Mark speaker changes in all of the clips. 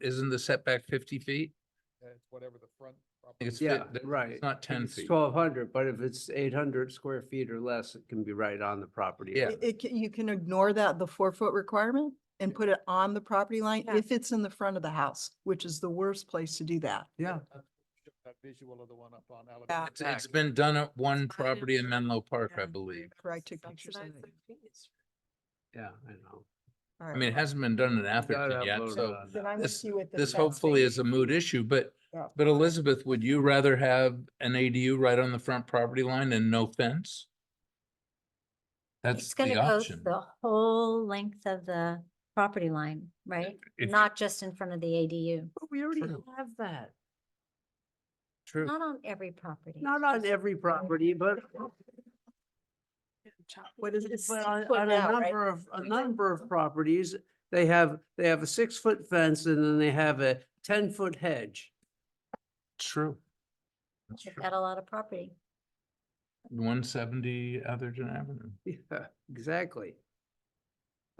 Speaker 1: Isn't the setback fifty feet?
Speaker 2: and it's whatever the front.
Speaker 1: I think it's
Speaker 2: property-
Speaker 1: fif-
Speaker 3: Yeah,
Speaker 1: that-
Speaker 3: right.
Speaker 1: It's not ten
Speaker 3: It's
Speaker 1: feet.
Speaker 3: twelve hundred, but if it's eight hundred square feet or less, it can be right on the property.
Speaker 1: Yeah.
Speaker 3: line.
Speaker 4: It, it can- you can ignore that, the four foot requirement and put it on the property line
Speaker 5: Yeah.
Speaker 4: if it's in the front of the house, which is the worst place to do that.
Speaker 3: Yeah,
Speaker 2: That visual of the one up on
Speaker 4: Yeah.
Speaker 2: Alabama.
Speaker 1: It's, it's
Speaker 2: Pack.
Speaker 1: been done at one
Speaker 5: I
Speaker 1: property in
Speaker 5: know.
Speaker 1: Menlo Park, I
Speaker 5: Yeah.
Speaker 1: believe.
Speaker 4: Where I took pictures of
Speaker 5: Subsidize
Speaker 4: it.
Speaker 5: the fees.
Speaker 3: yeah, I know.
Speaker 4: All
Speaker 1: I
Speaker 4: right.
Speaker 1: mean, it hasn't been done in Atherton
Speaker 3: Gotta
Speaker 1: yet,
Speaker 3: upload it
Speaker 1: so
Speaker 3: on
Speaker 4: Then
Speaker 3: that.
Speaker 4: I'm with
Speaker 1: this-
Speaker 4: you with the
Speaker 1: this
Speaker 4: fence
Speaker 1: hopefully
Speaker 4: thing.
Speaker 1: is a mood issue, but,
Speaker 4: Yeah.
Speaker 1: but Elizabeth, would you rather have an ADU right on the front property line and no fence? That's
Speaker 6: It's
Speaker 1: the
Speaker 6: gonna go
Speaker 1: option.
Speaker 6: the whole length of the property line, right?
Speaker 1: If-
Speaker 6: Not just in front of the ADU,
Speaker 3: But we already
Speaker 1: True.
Speaker 3: have that.
Speaker 1: True.
Speaker 6: not on every property.
Speaker 3: Not on every property, but
Speaker 5: Yeah, chop-
Speaker 4: What is it?
Speaker 5: it's
Speaker 3: But
Speaker 4: six
Speaker 3: on,
Speaker 4: foot
Speaker 3: on a
Speaker 4: now, right?
Speaker 3: number of, a number of properties, they have, they have a six-foot fence and then they have a ten-foot hedge.
Speaker 1: True. That's
Speaker 6: They've
Speaker 1: true.
Speaker 6: got a lot of property.
Speaker 1: One seventy Atherton Avenue.
Speaker 3: Yeah, exactly.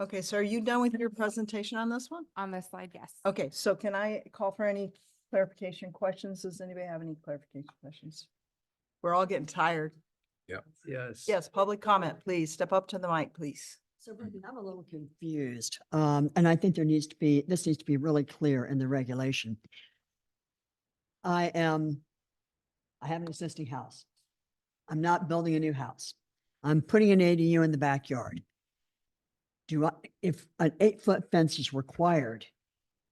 Speaker 4: Okay, so are you done with your presentation on this one?
Speaker 7: On this slide, yes.
Speaker 4: Okay, so can I call for any clarification questions? Does anybody have any clarification questions? We're all getting tired.
Speaker 3: Yes.
Speaker 4: Yes, public comment, please. Step up to the mic, please.
Speaker 8: So Brendan, I'm a little confused, um, and I think there needs to be, this needs to be really clear in the regulation. I am, I have an existing house. I'm not building a new house. I'm putting an ADU in the backyard. Do I, if an eight-foot fence is required,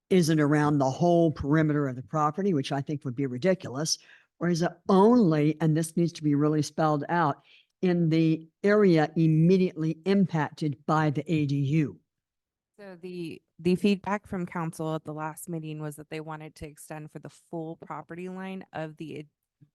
Speaker 8: is it around the whole perimeter of the property, which I think would be ridiculous? Or is it only, and this needs to be really spelled out, in the area immediately impacted by the ADU.
Speaker 7: So the, the feedback from council at the last meeting was that they wanted to extend for the full property line of the ad-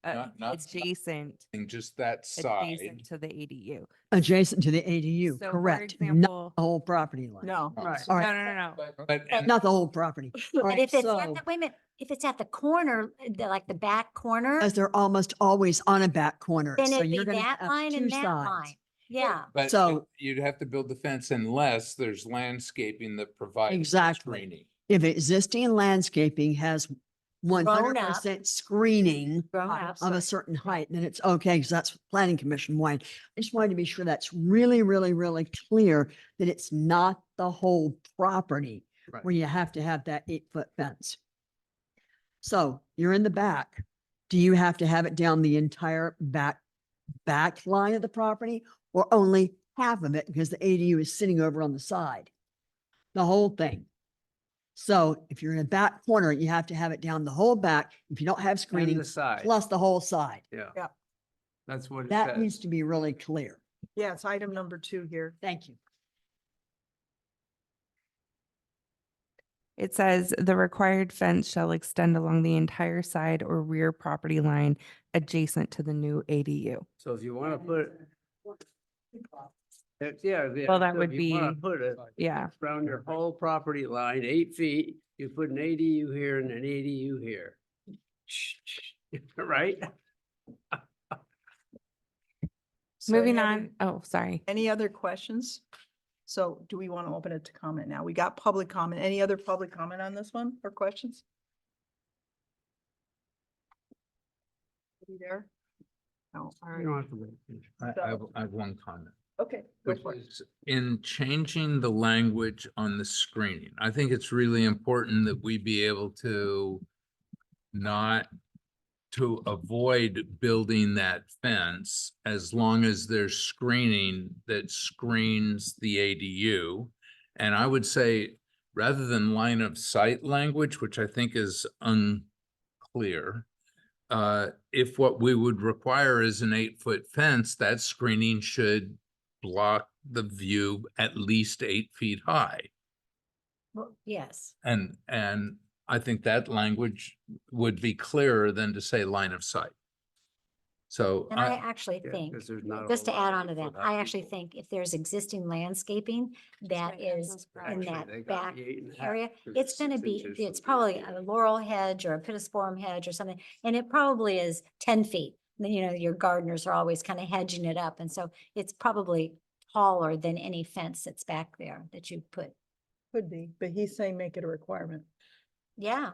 Speaker 7: uh,
Speaker 1: Not- not side.
Speaker 7: adjacent,
Speaker 1: And just that
Speaker 7: adjacent to the ADU.
Speaker 8: Adjacent to the ADU,
Speaker 7: So for
Speaker 8: correct? Not
Speaker 7: example-
Speaker 8: the whole property line.
Speaker 4: No.
Speaker 1: Not
Speaker 3: Right.
Speaker 1: side.
Speaker 8: All
Speaker 7: No,
Speaker 8: right,
Speaker 7: no, no, no.
Speaker 1: But, but- and-
Speaker 8: not the whole property. All
Speaker 6: But
Speaker 8: right,
Speaker 6: if it's at
Speaker 8: so,
Speaker 6: the, wait a minute, if it's at the corner, the- like the back corner,
Speaker 8: as they're almost always on a back corner,
Speaker 6: then
Speaker 8: so
Speaker 6: it'd be
Speaker 8: you're gonna
Speaker 6: that
Speaker 8: have
Speaker 6: line
Speaker 8: two
Speaker 6: and that line.
Speaker 8: sides.
Speaker 6: Yeah,
Speaker 1: but
Speaker 8: so-
Speaker 1: you'd have to build the fence unless there's landscaping that provides.
Speaker 8: Exactly.
Speaker 1: screening.
Speaker 8: If existing landscaping has one
Speaker 6: up.
Speaker 8: hundred percent screening
Speaker 6: Grown
Speaker 8: height
Speaker 6: ups,
Speaker 8: of
Speaker 6: right.
Speaker 8: a certain height, then it's okay, because that's what planning commission wanted. I just wanted to be sure that's really, really, really clear that it's not the whole property
Speaker 3: Right.
Speaker 8: where you have to have that eight-foot fence. So you're in the back. Do you have to have it down the entire back, back line of the property or only half of it because the ADU is sitting over on the side? The whole thing. So if you're in a back corner, you have to have it down the whole back. If you don't have
Speaker 3: On the
Speaker 8: screening,
Speaker 3: side.
Speaker 8: plus the whole side.
Speaker 3: Yeah.
Speaker 4: Yeah.
Speaker 3: That's what it
Speaker 8: That needs
Speaker 3: says.
Speaker 8: to be really clear.
Speaker 4: Yeah, it's item number two here.
Speaker 8: Thank you.
Speaker 7: It says the required fence shall extend along the entire side or rear property line adjacent to the new ADU.
Speaker 3: So if you want to put, it- yeah. yeah,
Speaker 7: Well, that
Speaker 3: so
Speaker 7: would
Speaker 3: if you wanna
Speaker 7: be-
Speaker 3: Put it
Speaker 7: Yeah.
Speaker 3: around your whole property line, eight feet, you put an ADU here and an ADU here. Right?
Speaker 4: So
Speaker 7: Moving
Speaker 4: any other-
Speaker 7: on. Oh, sorry.
Speaker 4: Any other questions? So do we want to open it to comment now? We got public comment. Any other public comment on this one or questions? Are you there? No, all
Speaker 3: You
Speaker 4: right.
Speaker 3: don't have to wait.
Speaker 1: I, I have- I have one comment.
Speaker 4: Okay. go
Speaker 1: Which
Speaker 4: for it.
Speaker 1: is in changing the language on the screening, I think it's really important that we be able to not to avoid building that fence as long as there's screening that screens the ADU. And I would say, rather than line of sight language, which I think is unclear, uh, if what we would require is an eight-foot fence, that screening should block the view at least eight feet high.
Speaker 6: Well, yes.
Speaker 1: And, and I think that language would be clearer than to say line of sight. So
Speaker 6: And I
Speaker 1: I,
Speaker 6: actually
Speaker 3: Yeah,
Speaker 6: think,
Speaker 3: 'cause there's not a
Speaker 6: just to
Speaker 3: whole lot
Speaker 6: add on to
Speaker 3: of
Speaker 6: that,
Speaker 3: people
Speaker 6: I
Speaker 3: have
Speaker 6: actually
Speaker 3: people.
Speaker 6: think if there's existing landscaping that
Speaker 7: right, that's
Speaker 6: is
Speaker 7: what's
Speaker 6: in
Speaker 3: Actually,
Speaker 7: correct.
Speaker 6: that
Speaker 3: they got
Speaker 6: back
Speaker 3: the eight and a half
Speaker 6: area,
Speaker 3: because
Speaker 6: it's
Speaker 3: six
Speaker 6: gonna be,
Speaker 3: inches
Speaker 6: it's
Speaker 3: from the
Speaker 6: probably
Speaker 3: ADU.
Speaker 6: a laurel hedge or a pittosporum hedge or something, and it probably is ten feet. Then, you know, your gardeners are always kind of hedging it up, and so it's probably taller than any fence that's back there that you put.
Speaker 4: Could be, but he's saying make it a requirement.
Speaker 6: yeah.